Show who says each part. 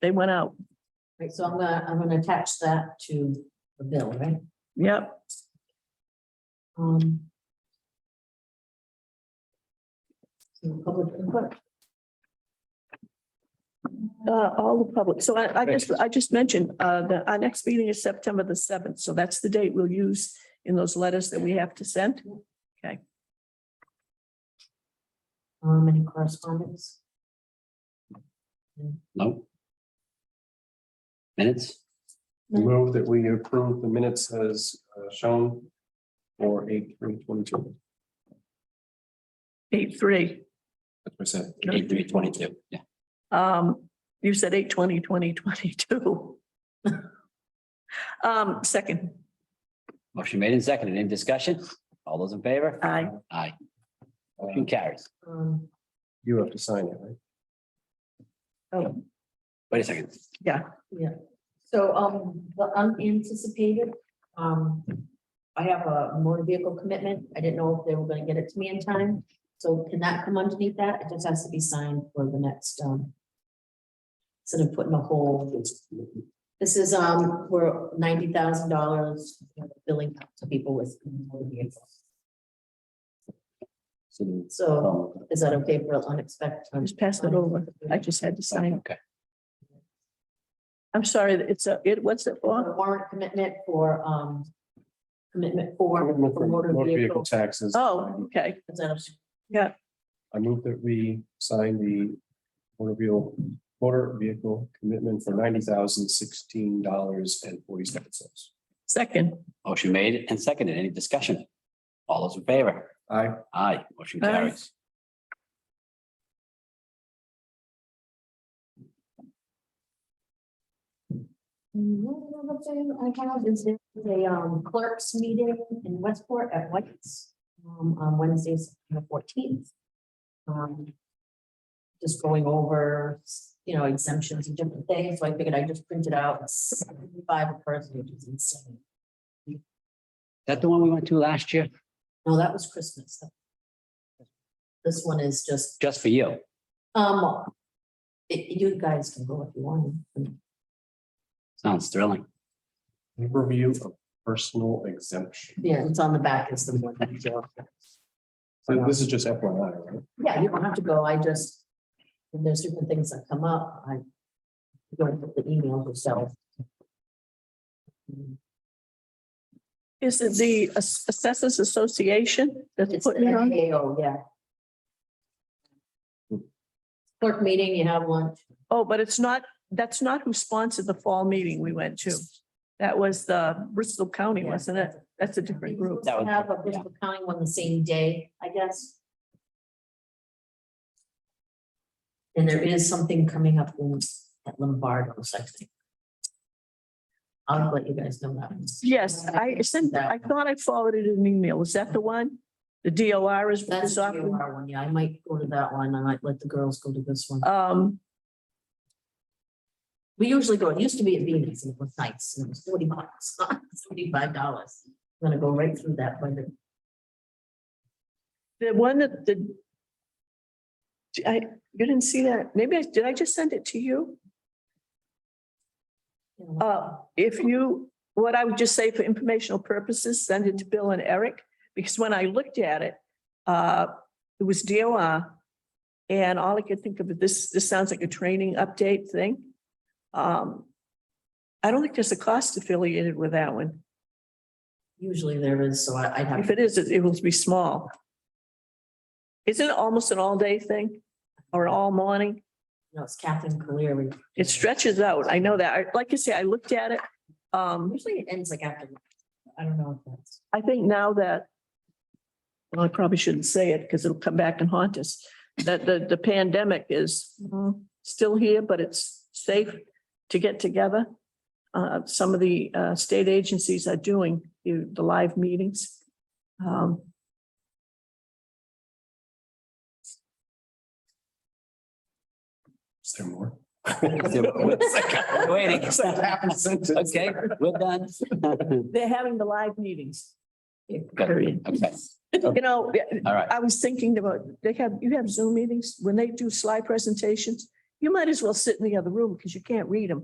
Speaker 1: They went out.
Speaker 2: Right, so I'm gonna, I'm gonna attach that to the bill, right?
Speaker 1: Yep.
Speaker 2: Um. So public input,
Speaker 1: Uh, all the public. So I, I just, I just mentioned, uh, that our next meeting is September the seventh. So that's the date we'll use in those letters that we have to send.
Speaker 2: um, any correspondence?
Speaker 3: No. Minutes,
Speaker 4: Move that we approve the minutes as uh, shown for eight three twenty-two.
Speaker 1: Eight, three.
Speaker 4: That's what I said.
Speaker 3: eight, three, twenty-two, yeah.
Speaker 1: Um, you said eight, twenty, twenty, twenty-two. Um, second,
Speaker 3: Motion made and seconded. Any discussion? All those in favor?
Speaker 1: aye.
Speaker 3: Aye. Motion carries.
Speaker 2: Um,
Speaker 4: Uh, You have to sign it, right?
Speaker 1: Oh,
Speaker 3: Wait a second.
Speaker 1: yeah.
Speaker 2: so, um, the unanticipated, um. I have a motor vehicle commitment, I didn't know if they were gonna get it to me in time, so can that come underneath that? It just has to be signed for the next, um. Instead of putting a whole, this is, um, we're ninety thousand dollars billing out to people with motor vehicles.
Speaker 3: So,
Speaker 2: So
Speaker 3: um,
Speaker 2: is that okay for unexpected?
Speaker 1: Just pass it over. I just had to sign.
Speaker 3: Okay,
Speaker 1: I'm sorry, it's a, it, what's it for?
Speaker 2: A Warrant commitment for, um, commitment for,
Speaker 4: Commitment
Speaker 2: for motor vehicle.
Speaker 4: taxes.
Speaker 1: Oh, okay.
Speaker 2: Is that a-
Speaker 4: I move that we sign the motor vehicle, motor vehicle commitment for ninety thousand sixteen dollars and forty-seven cents.
Speaker 1: Second,
Speaker 3: motion made and seconded. Any discussion? All those in favor?
Speaker 4: I,
Speaker 3: Aye, motion
Speaker 1: Aye.
Speaker 3: carries.
Speaker 2: Another thing I have is there's a um, clerks meeting in Westport at White's um, on Wednesday, September fourteenth. Um, Just going over, you know, exemptions and different things, so I figured I just printed out five a person, which is insane.
Speaker 3: That the one we went to last year?
Speaker 2: No, that was Christmas. This one is just,
Speaker 3: Just for you.
Speaker 2: um, it- you guys can go if you want.
Speaker 3: Sounds thrilling.
Speaker 4: review of personal exemption.
Speaker 2: Yeah, it's on the back, it's the one.
Speaker 4: So this is just FYI, right?
Speaker 2: Yeah, you don't have to go, I just, when there's different things that come up, I go and put the email yourself.
Speaker 1: is it the Ass- Assessors Association that's
Speaker 2: It's
Speaker 1: putting it on?
Speaker 2: the AO, yeah. Clerk meeting, you have lunch,
Speaker 1: Oh, but it's not, that's not who sponsored the fall meeting we went to. That was the Bristol County,
Speaker 2: Yeah.
Speaker 1: wasn't it? That's a different
Speaker 2: you
Speaker 1: group.
Speaker 3: That was-
Speaker 2: have a Bristol County one the same day, I guess. And there is something coming up in- at Lombardo's, I think. I'll let you guys know that.
Speaker 1: Yes, I sent, I thought I forwarded an email. Is that the one? The DOR is.
Speaker 2: That's
Speaker 1: is
Speaker 2: a
Speaker 1: offering-
Speaker 2: DOR one, yeah, I might go to that one, I might let the girls go to this one.
Speaker 1: Um,
Speaker 2: We usually go, it used to be at Venus and it was nice, and it was forty bucks, seventy-five dollars. I'm gonna go right through that window.
Speaker 1: the one that the. I, you didn't see that. Maybe I, did I just send it to you? Uh, if you, what I would just say for informational purposes, send it to Bill and Eric, because when I looked at it, uh, it was DOR. And all I could think of, this, this sounds like a training update thing. Um, I don't think there's a cost affiliated with that one.
Speaker 2: Usually there is, so I- I'd have.
Speaker 1: If it is, it it will be small. Isn't it almost an all-day thing or all morning?
Speaker 2: No, it's Catherine Cleary.
Speaker 1: It stretches out. I know that. I- Like I say, I looked at it. Um,
Speaker 2: Usually it ends like after, I don't know if that's.
Speaker 1: I think now that. Well, I probably shouldn't say it because it'll come back and haunt us, that the, the pandemic is mm, still here, but it's safe to get together. Uh, some of the, uh, state agencies are doing the, the live meetings. Um,
Speaker 4: Is there more?
Speaker 3: Waiting.
Speaker 4: Half a sentence.
Speaker 3: Okay, we're done.
Speaker 1: they're having the live meetings.
Speaker 3: Good. Okay,
Speaker 1: You know,
Speaker 3: all right.
Speaker 1: I was thinking about, they have, you have Zoom meetings, when they do slide presentations, You might as well sit in the other room because you can't read them.